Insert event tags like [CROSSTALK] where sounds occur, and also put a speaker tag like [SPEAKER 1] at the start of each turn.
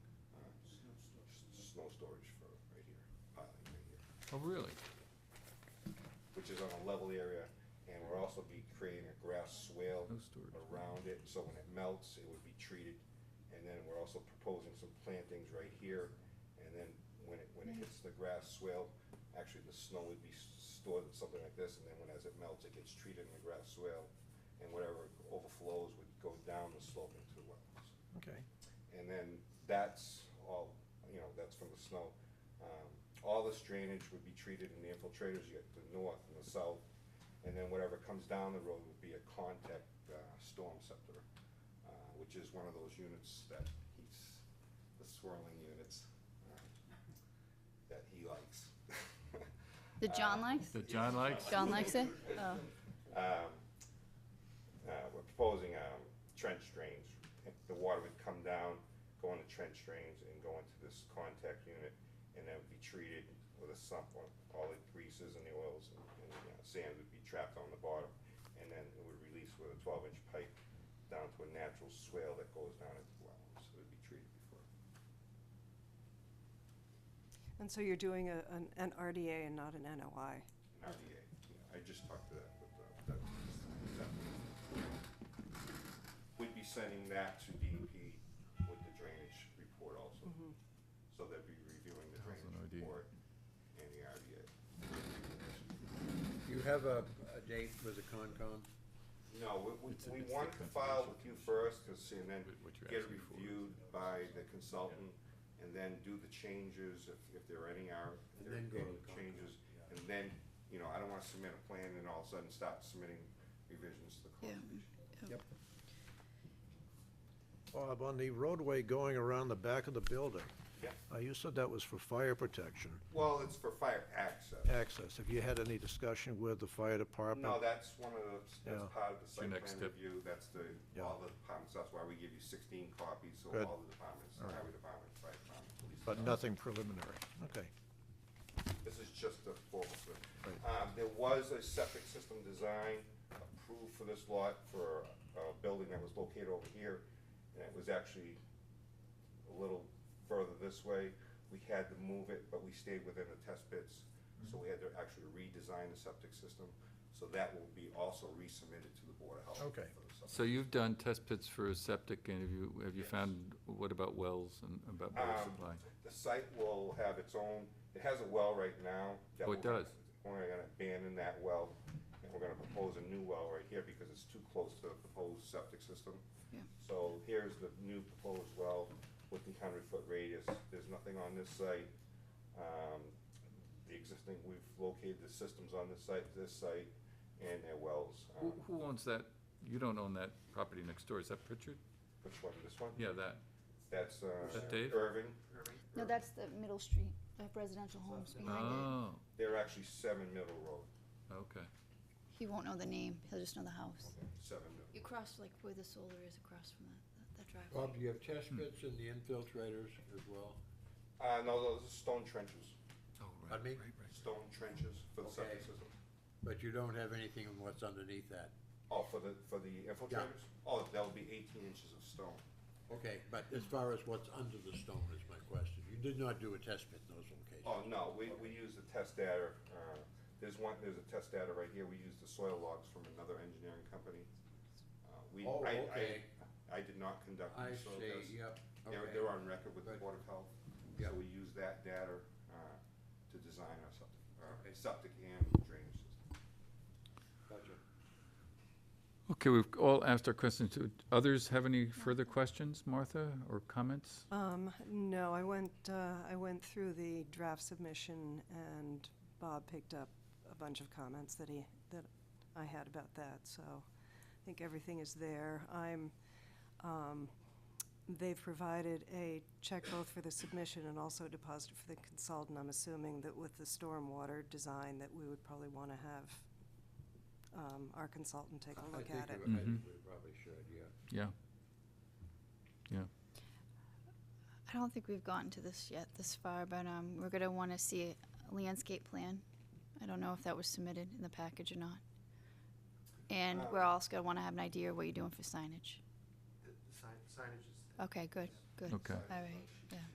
[SPEAKER 1] storage for right here, piling right here,
[SPEAKER 2] Oh, really?
[SPEAKER 1] which is on a level area. And we'll also be creating a grass swale
[SPEAKER 2] No storage.
[SPEAKER 1] around it, so when it melts, it would be treated. And then we're also proposing some plantings right here, and then when it, when it hits the grass swale, actually the snow would be s- stored in something like this, and then when, as it melts, it gets treated in the grass swale, and whatever overflows would go down the slope into the wetlands.
[SPEAKER 3] Okay.
[SPEAKER 1] And then that's all, you know, that's from the snow. Um, All this drainage would be treated in the infiltrators, you get the north and the south, and then whatever comes down the road would be a contact uh, storm scepter, uh, which is one of those units that he's, the swirling units uh, that he likes. [LAUGHS]
[SPEAKER 4] That John likes?
[SPEAKER 2] That John likes?
[SPEAKER 4] John likes it? Oh,
[SPEAKER 1] um, uh, we're proposing, um, trench drains. If The water would come down, go into trench drains and go into this contact unit and then be treated with a sump. All the greases and the oils and, and uh, sand would be trapped on the bottom. And then it would release with a twelve inch pipe down to a natural swale that goes down into the well. So it'd be treated before.
[SPEAKER 3] And so you're doing a, an, an RDA and not an NOI?
[SPEAKER 1] An RDA, yeah, I just talked to that, but, uh, that, that. We'd be sending that to DEP with the drainage report also.
[SPEAKER 5] Mm-hmm.
[SPEAKER 1] So they'd be reviewing the
[SPEAKER 2] How's an
[SPEAKER 1] drainage
[SPEAKER 2] idea?
[SPEAKER 1] report and the RDA.
[SPEAKER 5] You have a, a date with the Concom?
[SPEAKER 1] No, we- we,
[SPEAKER 2] It's a-
[SPEAKER 1] we
[SPEAKER 2] it's the
[SPEAKER 1] wanted to file with you first, cause, and then
[SPEAKER 2] What- what you're
[SPEAKER 1] get it
[SPEAKER 2] asking for is-
[SPEAKER 1] reviewed by the consultant, and then do the changes, if, if there are any are, if
[SPEAKER 5] And
[SPEAKER 1] there are
[SPEAKER 5] then go to
[SPEAKER 1] any
[SPEAKER 5] the Concom,
[SPEAKER 1] changes.
[SPEAKER 5] yeah.
[SPEAKER 1] And then, you know, I don't wanna submit a plan and all of a sudden start submitting revisions to the
[SPEAKER 4] Yeah.
[SPEAKER 1] conservation.
[SPEAKER 6] Bob, on the roadway going around the back of the building,
[SPEAKER 1] Yeah,
[SPEAKER 6] uh, you said that was for fire protection
[SPEAKER 1] well, it's for fire access.
[SPEAKER 6] access. Have you had any discussion with the fire department?
[SPEAKER 1] No, that's one of the, that's
[SPEAKER 6] Yeah.
[SPEAKER 1] part of the site
[SPEAKER 2] next
[SPEAKER 1] plan
[SPEAKER 2] step.
[SPEAKER 1] review, that's the,
[SPEAKER 6] Yeah.
[SPEAKER 1] all the departments, that's why we give you sixteen copies, so
[SPEAKER 6] Good.
[SPEAKER 1] all the departments, the highway department, fire department, police.
[SPEAKER 6] But
[SPEAKER 1] department.
[SPEAKER 6] nothing preliminary, okay.
[SPEAKER 1] This is just a formal survey.
[SPEAKER 6] Right.
[SPEAKER 1] Um, there was a septic system design approved for this lot for a building that was located over here, and it was actually a little further this way. We had to move it, but we stayed within the test pits, so we had to actually redesign the septic system. So that will be also resubmitted to the Board of Health.
[SPEAKER 6] Okay.
[SPEAKER 1] for the septic.
[SPEAKER 2] So you've done test pits for septic, and have you, have you
[SPEAKER 1] Yes.
[SPEAKER 2] found, what about wells and about water
[SPEAKER 1] Um,
[SPEAKER 2] supply?
[SPEAKER 1] The site will have its own, it has a well right now. that
[SPEAKER 2] Oh, it
[SPEAKER 1] we're-
[SPEAKER 2] does.
[SPEAKER 1] We're gonna abandon that well, and we're gonna propose a new well right here because it's too close to the proposed septic system.
[SPEAKER 4] Yeah.
[SPEAKER 1] So here's the new proposed well with the hundred foot radius, there's nothing on this site. Um, The existing, we've located the systems on this site, this site, and their wells.
[SPEAKER 2] Who,
[SPEAKER 1] Um,
[SPEAKER 2] who owns that? You don't own that property next door, is that Pritchard?
[SPEAKER 1] Which one, this one?
[SPEAKER 2] Yeah, that.
[SPEAKER 1] That's, uh,
[SPEAKER 2] Is that Dave?
[SPEAKER 1] Irving.
[SPEAKER 4] no, that's the Middle Street, the residential homes behind it.
[SPEAKER 2] Oh,
[SPEAKER 1] They're actually seven Middle Road,
[SPEAKER 2] okay.
[SPEAKER 4] He won't know the name, he'll just know the house.
[SPEAKER 1] seven Middle.
[SPEAKER 4] You cross like where the solar is across from that, that driveway.
[SPEAKER 5] Bob, do you have test pits and the infiltrators as well?
[SPEAKER 1] Uh, no, those are stone trenches,
[SPEAKER 2] Oh, right,
[SPEAKER 5] Pardon me?
[SPEAKER 2] right, right.
[SPEAKER 1] stone trenches for the septic
[SPEAKER 5] Okay.
[SPEAKER 1] system.
[SPEAKER 5] But you don't have anything on what's underneath that?
[SPEAKER 1] Oh, for the, for the infiltrators? Oh, that'll be eighteen inches of stone.
[SPEAKER 5] Okay, but as far as what's under the stone is my question. You did not do a test pit in those locations?
[SPEAKER 1] Oh, no, we, we use the test data, uh, there's one, there's a test data right here, we use the soil logs from another engineering company. Uh, We,
[SPEAKER 5] Oh,
[SPEAKER 1] I,
[SPEAKER 5] okay.
[SPEAKER 1] I, I did not conduct
[SPEAKER 5] I
[SPEAKER 1] the soil tests.
[SPEAKER 5] see, yep,
[SPEAKER 1] They're,
[SPEAKER 5] okay.
[SPEAKER 1] they're on record with the
[SPEAKER 5] Good.
[SPEAKER 1] Board of Health, so
[SPEAKER 5] Yep.
[SPEAKER 1] we use that data, uh, to design our septic, uh,
[SPEAKER 5] Okay.
[SPEAKER 1] septic and drainage system.
[SPEAKER 5] Gotcha.
[SPEAKER 2] Okay, we've all asked our questions. Do others have any further questions, Martha, or comments?
[SPEAKER 3] Um, no, I went, uh, I went through the draft submission and Bob picked up a bunch of comments that he, that I had about that, so I think everything is there. I'm, um, they've provided a check both for the submission and also a deposit for the consultant. I'm assuming that with the stormwater design that we would probably wanna have, um, our consultant take a
[SPEAKER 5] I
[SPEAKER 3] look
[SPEAKER 5] think
[SPEAKER 3] at it.
[SPEAKER 5] we- I think we probably should, yeah.
[SPEAKER 2] Yeah. Yeah.
[SPEAKER 4] I don't think we've gotten to this yet, this far, but, um, we're gonna wanna see a landscape plan. I don't know if that was submitted in the package or not. And
[SPEAKER 7] Uh,
[SPEAKER 4] we're also gonna wanna have an idea what you're doing for signage.
[SPEAKER 7] The the sign- signage is
[SPEAKER 4] Okay, good, good.
[SPEAKER 2] Okay.
[SPEAKER 4] All right, yeah.